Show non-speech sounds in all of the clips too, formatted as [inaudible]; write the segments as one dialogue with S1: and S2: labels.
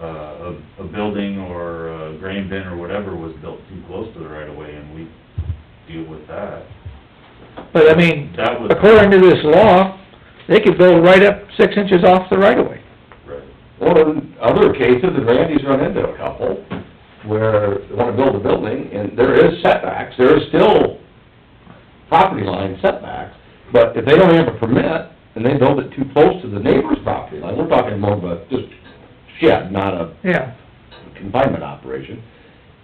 S1: uh, a, a building or a grain bin or whatever was built too close to the right of way and we deal with that.
S2: But I mean,
S1: That was-
S2: according to this law, they could go right up six inches off the right of way.
S1: Right.
S3: Or in other cases, and Randy's run into a couple, where they wanna build a building, and there is setbacks, there is still property line setbacks, but if they don't have a permit, and they build it too close to the neighbor's property line, we're talking more of a, just shed, not a
S2: Yeah,
S3: confinement operation,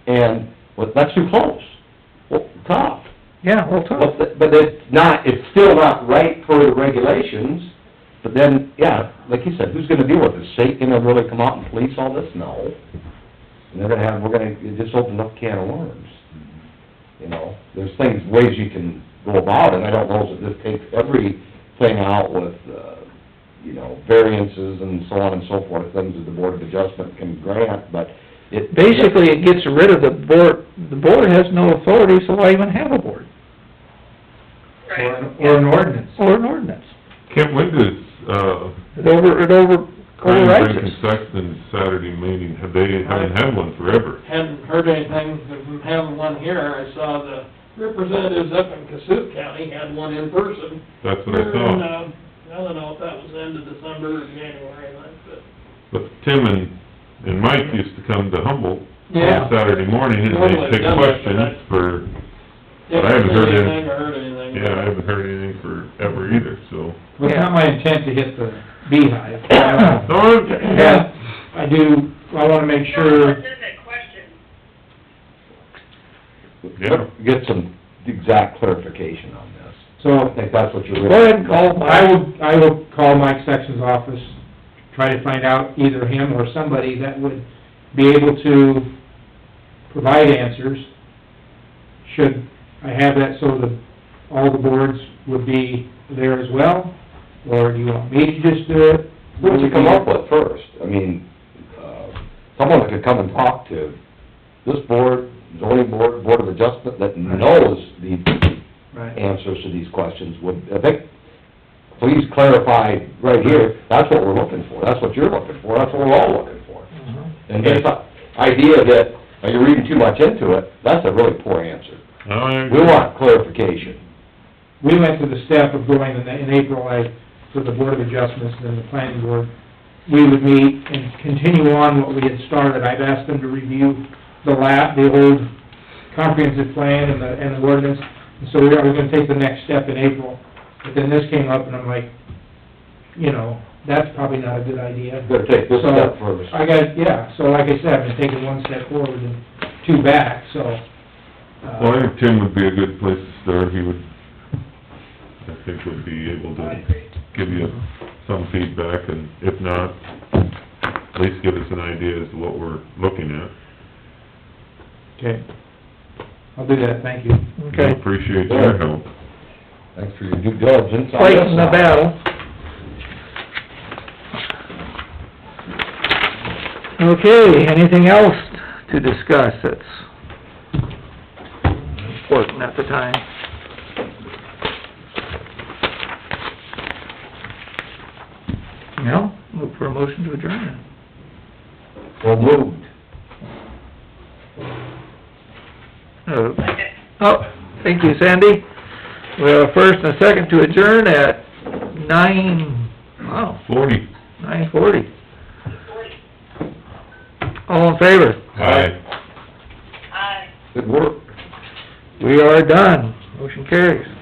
S3: and, well, that's too close, well, tough.
S2: yeah, well, tough.
S3: Well, th- But it's not, it's still not right for the regulations, but then, yeah, like you said, who's gonna deal with this? State gonna really come out and police all this? No. And they're gonna have, we're gonna, it just opened up a can of worms,
S1: Mm-hmm.
S3: you know? There's things, ways you can go about it, I don't know if this takes everything out with, uh, you know, variances and so on and so forth, things that the Board of Adjustment can grant, but it...
S2: Basically, it gets rid of the board, the board has no authority, so why even have a board
S4: Right.
S5: Or an ordinance.
S2: or an ordinance?
S6: Kent, when does, uh,
S2: It over, it over,
S6: Crane, Brink
S2: overrides
S6: and
S2: it.
S6: Sexton's Saturday meeting, have they haven't had one forever?
S5: Hadn't heard anything from having one here. I saw the representatives up in Cassup County had one in person.
S6: That's what I
S5: Here in,
S6: thought.
S5: uh, I don't know if that was the end of December or January, like,
S6: But
S5: but.
S6: Tim and, and Mike used to come to Humboldt
S5: Yeah.
S6: on Saturday morning and
S5: Normally
S6: they'd take
S5: done that, but I-
S6: questions for, but I haven't heard
S5: Didn't
S6: any-
S5: heard anything.
S6: yeah, I haven't heard anything forever either, so.
S7: Well, it's not my intent to hit the
S2: [coughs]
S7: beehive.
S6: No, I'm-
S7: But I do, I wanna make sure,
S4: Specific question.
S6: Yeah.
S3: Get some exact clarification on this. I
S7: so
S3: think that's what you're...
S2: Go ahead and call
S7: I
S2: Mike.
S7: will, I will call Mike Sexton's office, try to find out either him or somebody that would be able to provide answers. Should I have that so that all the boards would be there as well? Or do you want me to just do it?
S3: What did you come up with first? I mean, uh, someone that could come and talk to this board, zoning board, board of adjustment, that knows the
S7: Right.
S3: answers to these questions would, I think, please clarify right here, that's what we're looking for, that's what you're looking for, that's what we're all looking for.
S2: Mm-hmm.
S3: And this idea that, oh, you're reading too much into it, that's a really poor answer.
S6: I-
S3: We want clarification.
S7: we went to the step of going in, in April, like, for the Board of Adjustments and then the planning board, we would meet and continue on what we had started. I've asked them to review the la, the old comprehensive plan and the, and the ordinance, and so we are, we're gonna take the next step in April. But then this came up, and I'm like, you know, that's probably not a good idea.
S3: Gotta take this step first.
S7: So, I got, yeah, so like I said, I've been taking one step forward and two back, so, uh...
S6: Well, I think Tim would be a good place to start, he would, I think would be able to give you some feedback, and if not, at least give us an idea as to what we're looking at.
S7: Okay. I'll do that, thank you.
S6: We
S2: Okay,
S6: Appreciate your help.
S3: Thanks for your due diligence. on this
S2: fighting the
S3: one.
S2: battle. Okay, anything else to discuss that's important at the time? No, look for a motion to adjourn.
S3: So moved.
S2: Uh, Oh, thank you, Sandy. We have a first and a second to adjourn at nine, wow,
S6: Forty.
S2: nine forty. All in favor?
S6: Aye.
S4: Aye.
S3: Good work.
S2: We are done. Motion carries.